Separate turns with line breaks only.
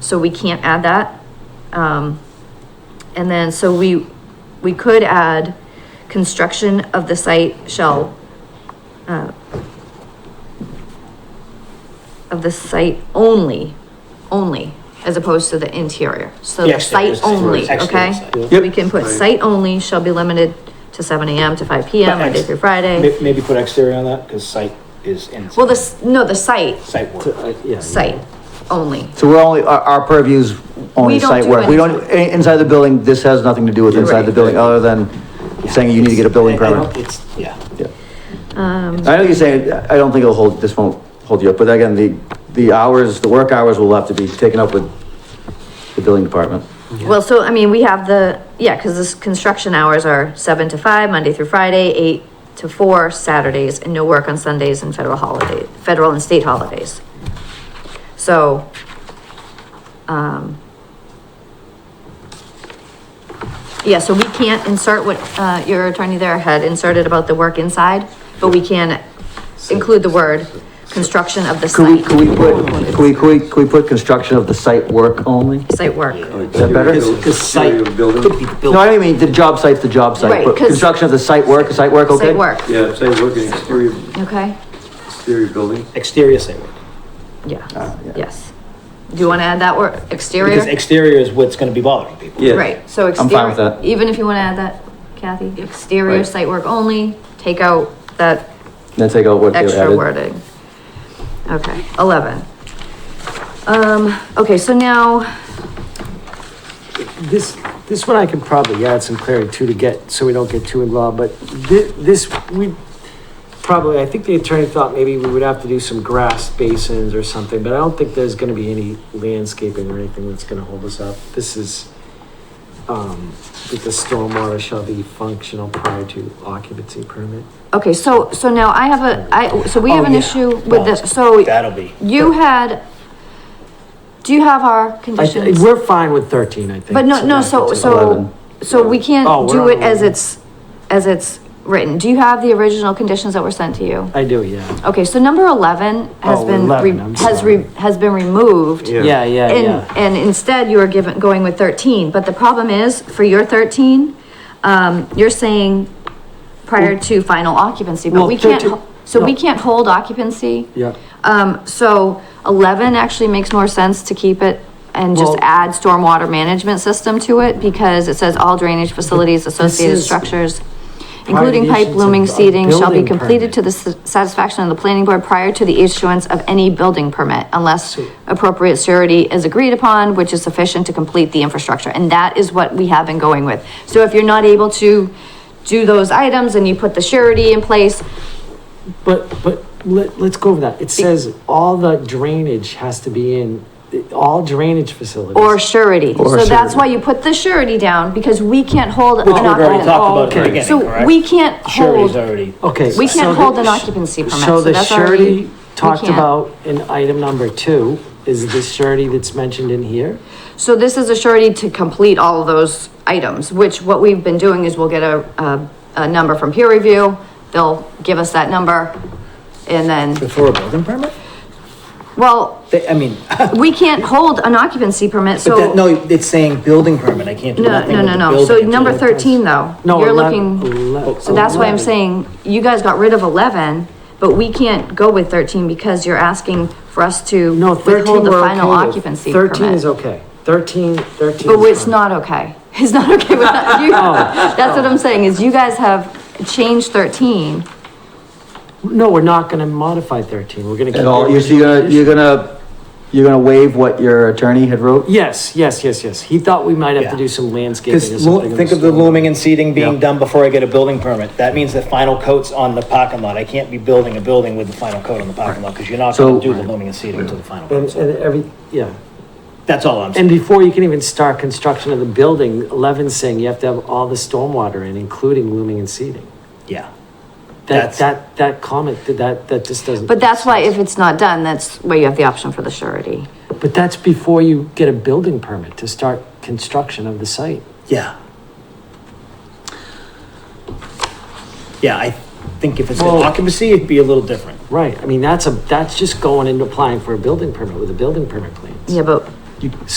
so we can't add that. Um, and then, so we, we could add, construction of the site shall, uh, of the site only, only, as opposed to the interior, so
The
the
exterior
site
site,
only,
right. Exterior
okay?
site.
Yep.
We can put site only shall be limited to seven AM to five PM,
But ex-
Monday through Friday.
May- Maybe put exterior on that, because site is inside.
Well, this, no, the site,
Site
To-
work.
I- yeah,
site only,
So we're only, our, our purview's
We
only
don't
site
do
work. We don't,
anything.
i- inside the building, this has nothing to do with inside the
Right.
building, other than saying you need to get a building
I- I don't-
permit.
It's, yeah.
Yeah.
um.
I know you're saying, I don't think it'll hold, this won't hold you up, but again, the, the hours, the work hours will have to be taken up with the building department.
Well, so, I mean, we have the, yeah, cause this construction hours are seven to five, Monday through Friday, eight to four Saturdays, and no work on Sundays and federal holiday, federal and state holidays. So, um, yeah, so we can't insert what, uh, your attorney there had inserted about the work inside, but we can include the word construction of the
Could we,
site,
could we put, could we, could we, could we put construction of the site work only?
site work.
Is that better?
Because site
Exterior building.
could be built.
No, I don't mean, the job site's the job
Right,
site, but
'cause-
construction of the site work, is site work okay?
Site work,
Yeah, site work and exterior,
okay?
exterior building.
Exterior site work.
Yeah,
Ah, yeah.
yes. Do you want to add that word,
Because
exterior?
exterior is what's gonna be bothering people.
Yeah.
Right, so
I'm fine with
exterior,
that.
even if you want to add that, Kathy, exterior
Right.
site work only, take out that
Then take out what they
extra
added.
wording. Okay, eleven. Um, okay, so now,
This, this one I can probably add some clarity to to get, so we don't get too involved, but thi- this, we probably, I think the attorney thought maybe we would have to do some grass basins or something, but I don't think there's gonna be any landscaping or anything that's gonna hold us up. This is, um, that the stormwater shall be functional prior to occupancy permit.
okay, so, so now I have a, I, so we
Oh,
have an
yeah.
issue with
Well,
this, so
That'll be.
you had, do you have our
I th-
conditions?
We're fine with thirteen, I think.
But no, no,
that
so,
gets
so,
Eleven.
so we
Oh,
can't
we're
do
on
it as
11.
it's, as it's written. Do you have the original conditions that were sent to you?
I do, yeah.
Okay, so number eleven has
Oh,
been,
11,
re-
I'm
has
sorry.
re, has been removed.
Yeah.
Yeah, yeah,
And,
yeah.
and instead you are given, going with thirteen, but the problem is, for your thirteen, um, you're saying prior to final occupancy, but
Well,
we can't,
13
ho- so we
no.
can't hold occupancy.
Yeah.
Um, so eleven actually makes more sense to keep it and just
Well-
add stormwater management system to it because it says all drainage facilities, associated
is-
structures, including pipe,
Violations
looming,
of- of
seating, shall be
building
completed
permit.
to the s- satisfaction of the planning board prior to the issuance of any building permit unless appropriate surety is agreed upon, which is sufficient to complete the infrastructure. And that is what we have been going with. So if you're not able to do those items and you put the surety in place,
But, but let, let's go over that. It says all the drainage has to be in, all drainage facilities.
Or surety.
Or
So that's
surety.
why you put the surety down, because we can't hold an
Which we've already
occupancy.
talked about at the
okay.
beginning,
So
correct?
we can't
Surety's
hold,
already.
Okay.
we
so
can't
the-
hold an occupancy permit,
So
so
the
that's already.
surety
we
talked
can't.
about in item number two, is the surety that's mentioned in here?
So this is a surety to complete all of those items, which what we've been doing is we'll get a, a, a number from peer review. They'll give us that number and then,
Before a building permit?
well,
They, I mean, but
we can't hold an occupancy permit,
that,
so.
no, it's saying building permit. I can't do
No,
nothing
no,
with
no,
the
no. So
building
number
until-
thirteen though,
No,
you're
eleven-
looking.
ele-
So that's why I'm saying, you guys got rid of eleven, but we can't go with thirteen because you're asking for us to
No, thirteen
withhold the
we're
final
okay with.
occupancy
Thirteen is
permit.
okay. Thirteen, thirteen.
But
is
it's
fine.
not okay. It's not okay with that. You- That's what I'm saying, is you guys have changed thirteen.
No, we're not gonna modify thirteen. We're gonna.
At
keep
all,
it-
you're,
uh,
so you're gonna, you're gonna, you're gonna waive what your attorney had wrote?
Yes, yes, yes, yes. He thought we might have
Yeah.
to do some landscaping or
Because
something. in
think of the
storm.
looming and seating being
Yeah.
done before I get a building permit. That means the final coat's on the parking lot. I can't be building a building with the final coat on the parking lot because you're not
So-
gonna do the looming and seating until the final
And,
coat's on.
and every, yeah.
That's all I'm
And
saying.
before you can even start construction of the building, Levin's saying you have to have all the stormwater in, including looming and seeding.
Yeah.
That,
That's-
that, that comment, that, that just doesn't.
But that's why if it's not done, that's where you have the option for the surety.
But that's before you get a building permit to start construction of the site.
Yeah. Yeah, I think if it's an
Well-
occupancy, it'd be a little different.
Right, I mean, that's a, that's just going and applying for a building permit with a building permit plans.
Yeah, but